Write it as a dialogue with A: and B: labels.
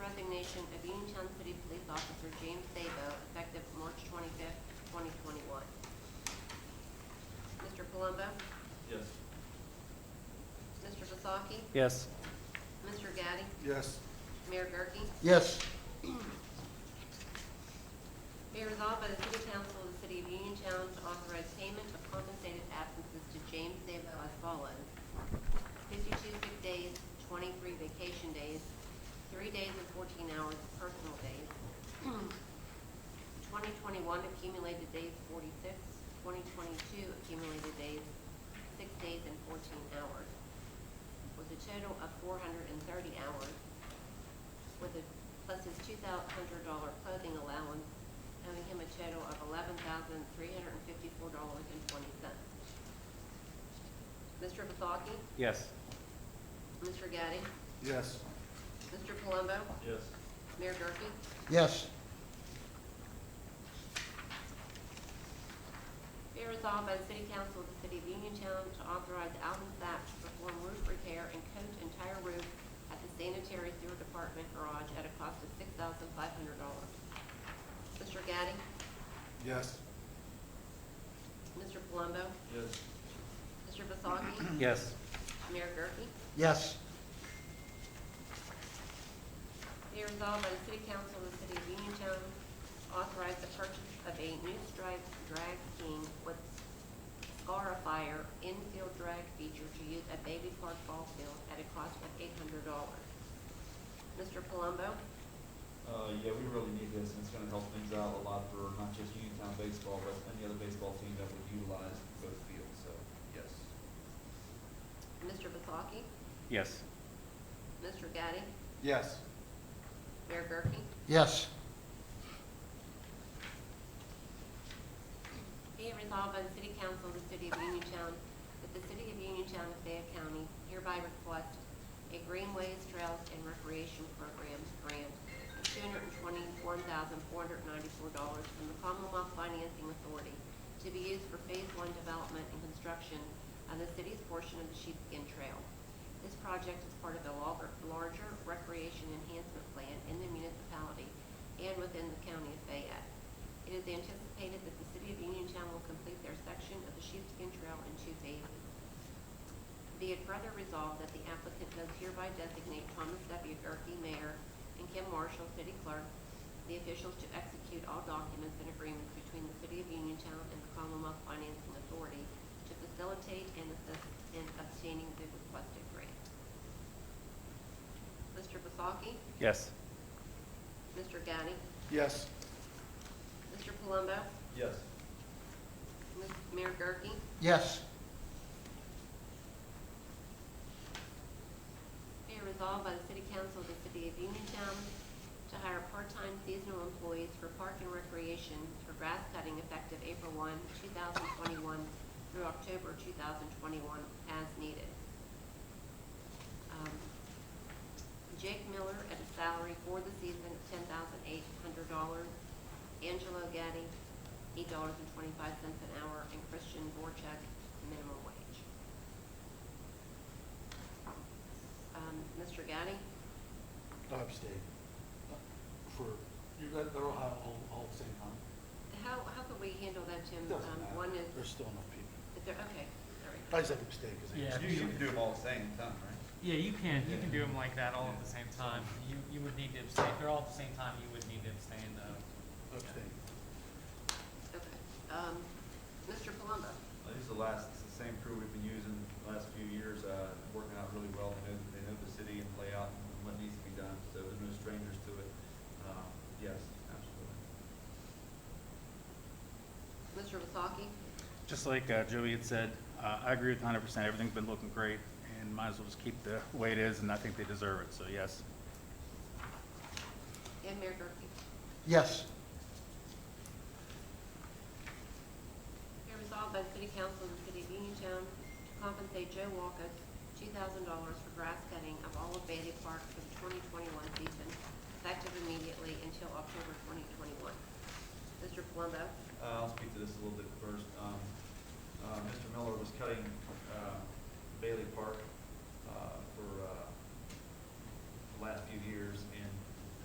A: Sun City Police Officer James Sabo, effective March twenty-fifth, twenty twenty-one. Mr. Palumbo?
B: Yes.
A: Mr. Vasaki?
C: Yes.
A: Mr. Gaddy?
B: Yes.
A: Mayor Gurke?
D: yes,
A: Be resolved by the City Council of the City of Uniontown to authorize payment of compensated absences to James Sabo as follows. Fifty-two sick days, twenty-three vacation days, three days and fourteen hours of personal days. Twenty twenty-one accumulated days forty-six, twenty twenty-two accumulated days, six days and fourteen hours, with a total of four hundred and thirty hours, with a, plus his two hundred dollar clothing allowance, owing him a total of eleven thousand three hundred and fifty-four dollars and twenty cents. Mr. Vasaki?
C: Yes.
A: Mr. Gaddy?
B: Yes.
A: Mr. Palumbo?
B: Yes.
A: Mayor Gurke?
D: yes,
A: Be resolved by the City Council of the City of Uniontown to authorize Alvin Sapp to perform roof repair and coat entire roof at the sanitary sewer department garage at a cost of six thousand five hundred dollars. Mr. Gaddy?
B: Yes.
A: Mr. Palumbo?
B: Yes.
A: Mr. Vasaki?
C: Yes.
A: Mayor Gurke?
D: yes,
A: Be resolved by the City Council of the City of Uniontown, to authorize the purchase of a new striped drag king with scarifier infield drag feature to use at Baby Park Ball Field at a cost of eight hundred dollars. Mr. Palumbo?
E: Uh, yeah, we really need this, and it's gonna help things out a lot for not just Uniontown baseball, but any other baseball team that would utilize both fields, so, yes.
A: Mr. Vasaki?
C: Yes.
A: Mr. Gaddy?
B: Yes.
A: Mayor Gurke?
D: yes,
A: Be it resolved by the City Council of the City of Uniontown that the City of Uniontown of Fayette County hereby request a Greenways Trails and Recreation Program grant of two hundred and twenty-one thousand, four hundred and ninety-four dollars from the Commonwealth Financing Authority to be used for Phase One development and construction of the city's portion of the Sheepskin Trail. This project is part of the log- larger recreation enhancement plan in the municipality and within the county of Fayette. It is anticipated that the city of Uniontown will complete their section of the Sheepskin Trail in two phases. Be it further resolved that the applicant does hereby designate Thomas W. Gerke, Mayor, and Kim Marshall, City Clerk, the officials to execute all documents and agreements between the City of Uniontown and the Commonwealth Financing Authority to facilitate and assist in obtaining the requested grant. Mr. Basaki?
C: Yes.
A: Mr. Gaddy?
B: Yes.
A: Mr. Palumbo?
B: Yes.
A: Ms. Mayor Gerke?
D: yes,
A: Be it resolved by the City Council of the City of Uniontown to hire part-time seasonal employees for park and recreation for grass cutting effective April 1, 2021 through October 2021 as needed. Um, Jake Miller at a salary for the season of ten thousand eight hundred dollars. Angelo Gaddy, eight dollars and twenty-five cents an hour, and Christian Borchek, minimum wage. Um, Mr. Gaddy?
B: Upstate. For, you got, they're all, all the same time.
A: How, how could we handle that, Tim?
B: Doesn't
A: Um,
B: matter.
A: One is,
B: There's still enough people.
A: is there, okay, all right.
B: I just have a mistake. 'cause I-
C: Yeah.
E: You, you can do them all at the same time, right?
F: Yeah, you can, you can do them like that all at the same time. You, you would need to abstain, if they're all at the same time, you would need to abstain though.
B: Upstate.
A: Okay. Um, Mr. Palumbo?
E: Uh, These are the last, it's the same crew we've been using the last few years, uh, working out really well, they know, they know the city and layout and what needs to be done, so they're no strangers to it. Um, yes, absolutely.
A: Mr. Vasaki?
C: Just like uh, Joey had said, uh, I agree with hundred percent. Everything's been looking great and might as well just keep the way it is and I think they deserve it, so yes.
A: And Mayor Gurke?
D: yes,
A: Be resolved by the City Council of the City of Uniontown to compensate Joe Walkus two thousand dollars for grass cutting of all of Bailey Park for the twenty twenty-one season, effective immediately until October twenty twenty-one. Mr. Palumbo?
E: Uh, I'll speak to this a little bit first. Um, uh, Mr. Miller was cutting uh, Bailey Park uh, for uh, the last few years, and